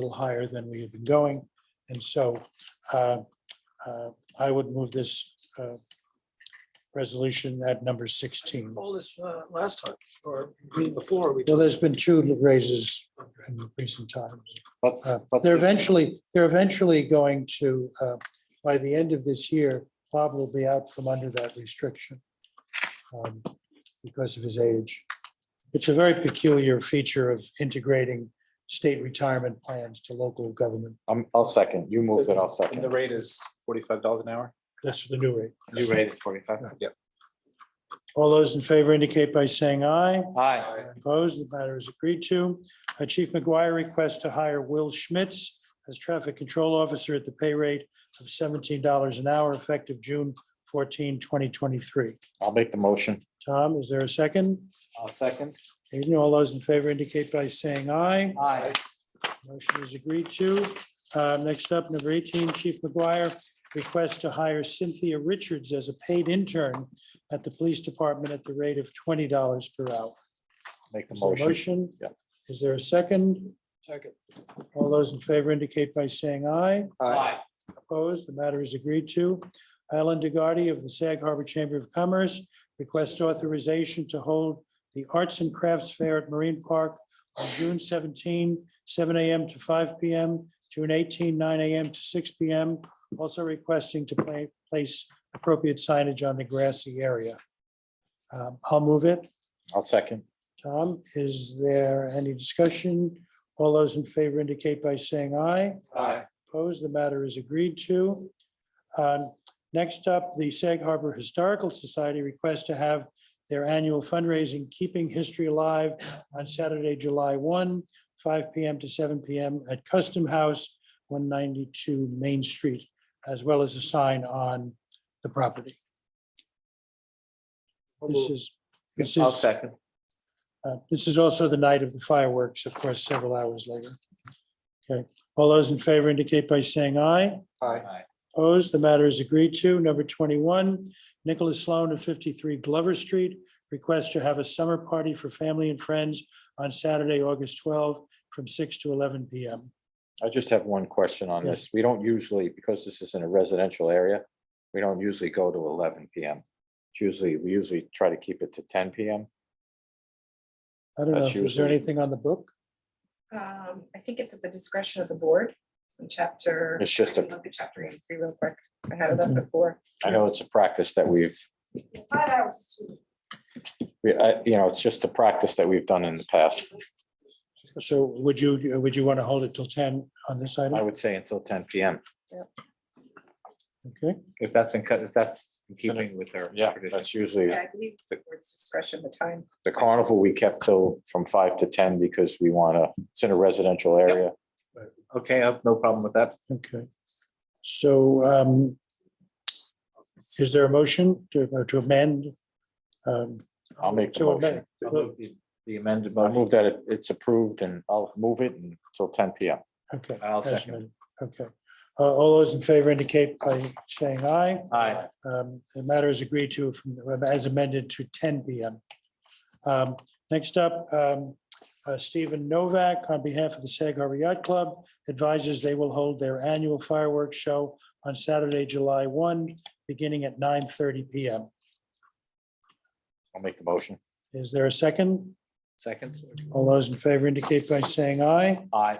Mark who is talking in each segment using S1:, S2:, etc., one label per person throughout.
S1: little higher than we had been going. And so uh, uh, I would move this uh, resolution at number 16.
S2: all this uh, last time or before we.
S1: Well, there's been two raises in recent times.
S3: Let's,
S1: Uh,
S3: let's
S1: They're
S3: do-
S1: eventually, they're eventually going to, uh, by the end of this year, Bob will be out from under that restriction um, because of his age. It's a very peculiar feature of integrating state retirement plans to local government.
S3: I'm, I'll second. You moved it, I'll
S4: And the
S3: second.
S4: rate is forty-five dollars an hour?
S1: That's the new rate.
S3: You rated forty-five.
S1: All those in favor indicate by saying aye.
S3: Aye.
S1: Opposed, the matter is agreed to. Uh, Chief McGuire requests to hire Will Schmitz as traffic control officer at the pay rate of $17 an hour effective June 14, 2023.
S3: I'll make the motion.
S1: Tom, is there a second?
S3: I'll second.
S1: Hearing none, all those in favor indicate by saying aye.
S3: Aye.
S1: Motion is agreed to. Uh, Next up, number 18, Chief McGuire requests to hire Cynthia Richards as a paid intern at the police department at the rate of $20 per hour.
S3: Make the
S1: Is there a
S3: motion.
S1: motion?
S3: Yeah.
S1: Is there a second? Second. All those in favor indicate by saying aye. Opposed, the matter is agreed to. Alan DeGardi of the Sag Harbor Chamber of Commerce requests authorization to hold the Arts and Crafts Fair at Marine Park on June 17, 7 a.m. to 5 p.m., June 18, 9 a.m. to 6 p.m., also requesting to pla- place appropriate signage on the grassy area. Um, I'll move it.
S3: I'll second.
S1: Tom, is there any discussion? All those in favor indicate by saying aye.
S3: Aye.
S1: Opposed, the matter is agreed to. Um, Next up, the Sag Harbor Historical Society requests to have their annual fundraising, Keeping History Alive, on Saturday, July 1, 5 PM to 7 PM at Custom House, 192 Main Street, as well as a sign on the property. This is, this
S3: I'll
S1: is
S3: second.
S1: uh, This is also the night of the fireworks, of course, several hours later. Okay, all those in favor indicate by saying aye.
S4: Aye.
S1: Opposed, the matter is agreed to. Number 21, Nicholas Sloan of 53 Glover Street requests to have a summer party for family and friends on Saturday, August 12, from 6 to 11 PM.
S3: I just have one question on
S1: Yeah.
S3: this. We don't usually, because this is in a residential area, we don't usually go to eleven PM. It's usually, we usually try to keep it to ten PM.
S1: I don't know,
S3: That's
S1: is there
S3: usually-
S1: anything on the book?
S5: Um, I think it's at the discretion of the board in chapter.
S3: It's just a-
S5: Let me Look at chapter eighty-three real quick. I had it up before.
S3: I know it's a practice that we've,
S5: Five hours is too.
S3: we, I, you know, it's just a practice that we've done in the past.
S1: So would you, would you want to hold it till 10 on this
S3: I
S1: item?
S3: would say until ten PM.
S1: Okay,
S6: If that's in, co- if that's in keeping with their.
S3: Yeah,
S6: tradition.
S3: that's usually.
S5: Yeah, I believe it's the board's discretion, the time.
S3: The carnival we kept till from five to ten because we want to, it's in a residential area.
S6: Okay, I've no problem with that.
S1: okay. So um, is there a motion to to amend? um,
S3: I'll make the
S1: to amend-
S3: motion.
S6: I'll move the- The amended
S3: I
S6: motion.
S3: move that it- it's approved and I'll move it until ten PM.
S1: Okay.
S6: I'll
S1: as
S6: second.
S1: amended. Okay. Uh, All those in favor indicate by saying aye.
S6: Aye.
S1: Um, The matter is agreed to from, as amended to ten PM. Um, Next up, um, uh, Stephen Novak, on behalf of the Sag Harbor Yacht Club, advises they will hold their annual fireworks show on Saturday, July one, beginning at nine thirty PM.
S3: I'll make the motion.
S1: Is there a second?
S6: Second.
S1: All those in favor indicate by saying aye.
S6: Aye.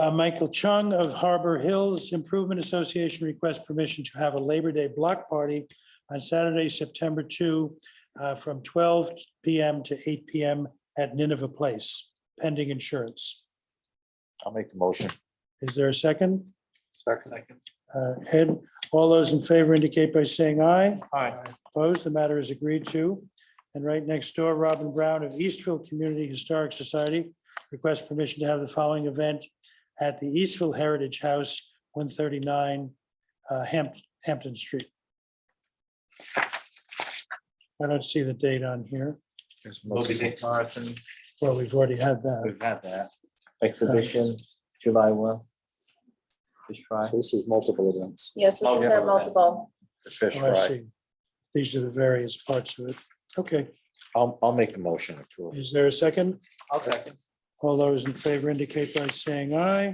S1: Uh, Michael Chung of Harbor Hills Improvement Association requests permission to have a Labor Day block party on Saturday, September 2, uh, from 12 PM to 8 PM at Nineveh Place, pending insurance.
S3: I'll make the motion.
S1: Is there a second?
S4: Second.
S6: Second.
S1: Uh, Ed, all those in favor indicate by saying aye.
S6: Aye.
S1: Opposed, the matter is agreed to. And right next door, Robin Brown of Eastville Community Historic Society requests permission to have the following event at the Eastville Heritage House, 139 uh, Hamp- Hampton Street. I don't see the date on here.
S6: There's Moby Dick Marathon.
S1: Well, we've already had that.
S6: We've had that. Exhibition, July one. Fish fry.
S4: This is multiple events.
S5: Yes,
S6: this Oh, is yeah. their multiple.
S3: The fish
S1: Oh, I
S3: fry.
S1: see. These are the various parts of it. Okay,
S3: I'll, I'll make the motion. to approve.
S1: is there a second?
S6: I'll second.
S1: All those in favor indicate by saying aye.